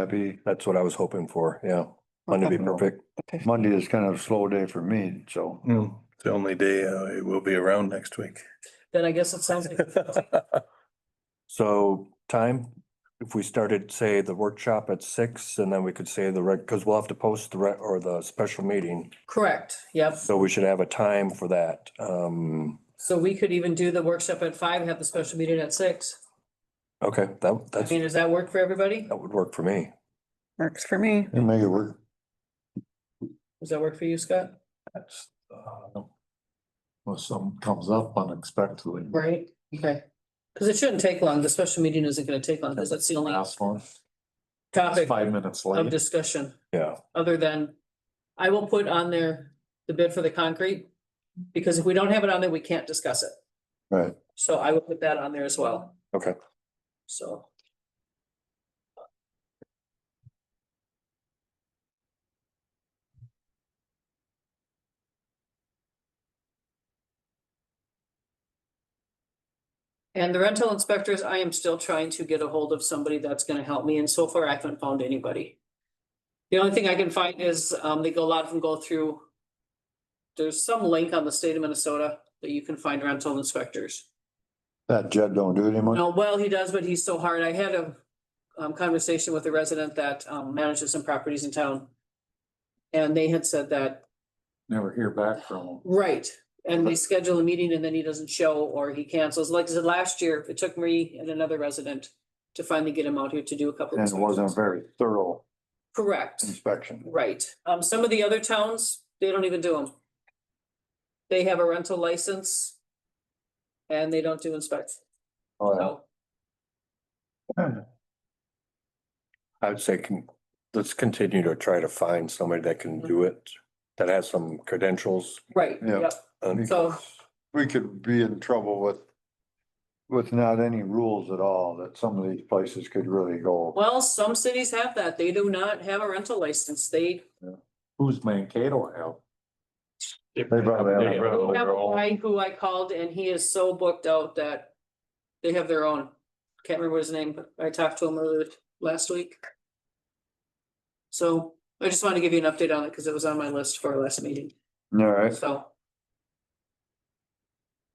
Happy, that's what I was hoping for, yeah. Monday be perfect. Okay. Monday is kind of a slow day for me, so. Mm, It's the only day uh, it will be around next week. Then I guess it sounds like, So time, if we started, say, the workshop at six and then we could say the reg, because we'll have to post the re, or the special meeting. correct, yep. So we should have a time for that. Um, So we could even do the workshop at five, have the special meeting at six. okay, that, I that's, mean, does that work for everybody? that would work for me. Works for me. You make it work. Does that work for you, Scott? That's, uh, Unless something comes up unexpectedly. Right, okay. Cause it shouldn't take long. The special meeting isn't gonna take long, cause that's the only Last one, topic five minutes of late. discussion. Yeah, other than, I will put on there the bid for the concrete. Because if we don't have it on there, we can't discuss it. Right. So I will put that on there as well, okay. so. And the rental inspectors, I am still trying to get a hold of somebody that's gonna help me, and so far I haven't found anybody. The only thing I can find is, um, they go, a lot of them go through. There's some link on the state of Minnesota that you can find rental inspectors. That Jed don't do it anymore? No, well, he does, but he's so hard. I had a um conversation with a resident that um manages some properties in town. And they had said that, Never hear back from him. right, and they schedule a meeting and then he doesn't show or he cancels. Like I said, last year, it took me and another resident to finally get him out here to do a couple. And it wasn't Hmm. a inspections. very thorough Correct. inspection. Right, um, some of the other towns, they don't even do them. They have a rental license. And they don't do inspections, Oh, so, I would say, con- let's continue to try to find somebody that Mm-hmm. can do it, that has some credentials. right, Yeah. yep, yeah. and- so, We could be in trouble with, with not any rules at all, that some of these places could really go. well, some cities have that, they do not have a rental license, they. Who's Mankato help? They probably have. They We probably have a guy Who I called and he is so booked out that they have their own, can't remember his name, but I talked to him earlier last week. So, I just wanted to give you an update on it, cause it was on my list for our last meeting, All right, so.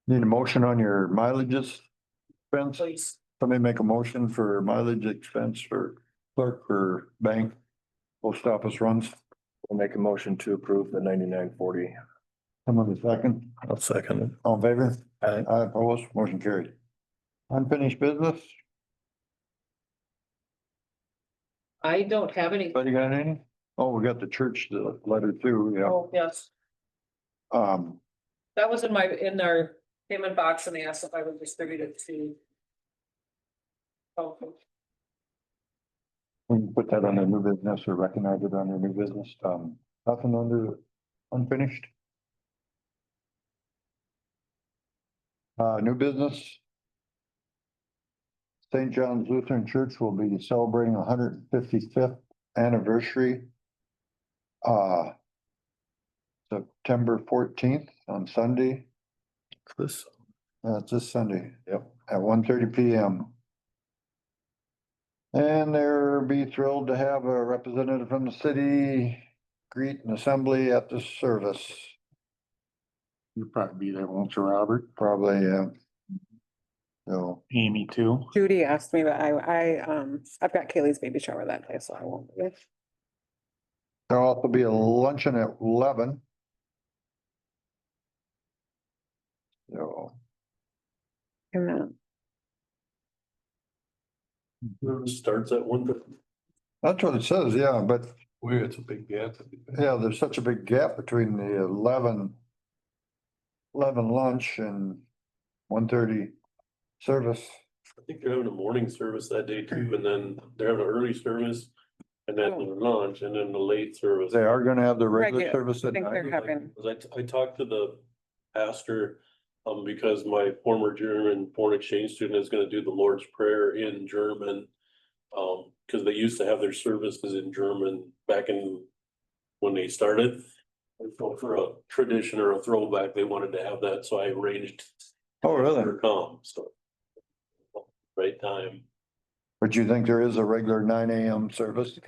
need a motion on your mileages expense? Please. Somebody make a motion for mileage expense for clerk or bank, post office runs. We'll make a motion to approve the ninety-nine forty. Someone in second, I'll second it. all in favor? Aye. Aye, opposed, motion carried. Unfinished business, I don't have any, anybody got any? Oh, we got the church, the letter too, yeah. oh, yes, Um, that was in my, in our payment box and they asked if I would distribute it to. Oh, we can put that on the new business or recognize it on the new business, um, nothing under unfinished. Uh, new business. St. John's Lutheran Church will be celebrating hundred and fifty-fifth anniversary. Uh. September fourteenth on Sunday, This, uh, it's this Sunday. Yep. At one thirty P M. And they'll be thrilled to have a representative from the city greet an assembly at the service. You'll probably be there, won't you, Robert? Probably, yeah. So. Amy too. Judy asked me, but I, I, um, I've got Kaylee's baby shower that day, so I won't. be. There'll also be a luncheon at eleven. So. And then starts at one, That's what it says, yeah, but weird, it's a big gap. yeah, there's such a big gap between the eleven. Eleven lunch and one thirty service. I think they're having a morning service that day too, and then they're having an early service. And then Oh. their lunch and then the late service. They are gonna have the regular Regular, service I at think night. they're having, Cause I, t- I talked to the pastor, um, because my former German foreign exchange student is gonna do the Lord's Prayer in German. Um, cause they used to have their services in German back in when they started. And so for a tradition or a throwback, they wanted to have that, so I arranged Oh, really? her to come, so. Right time. But you think there is a regular nine AM service?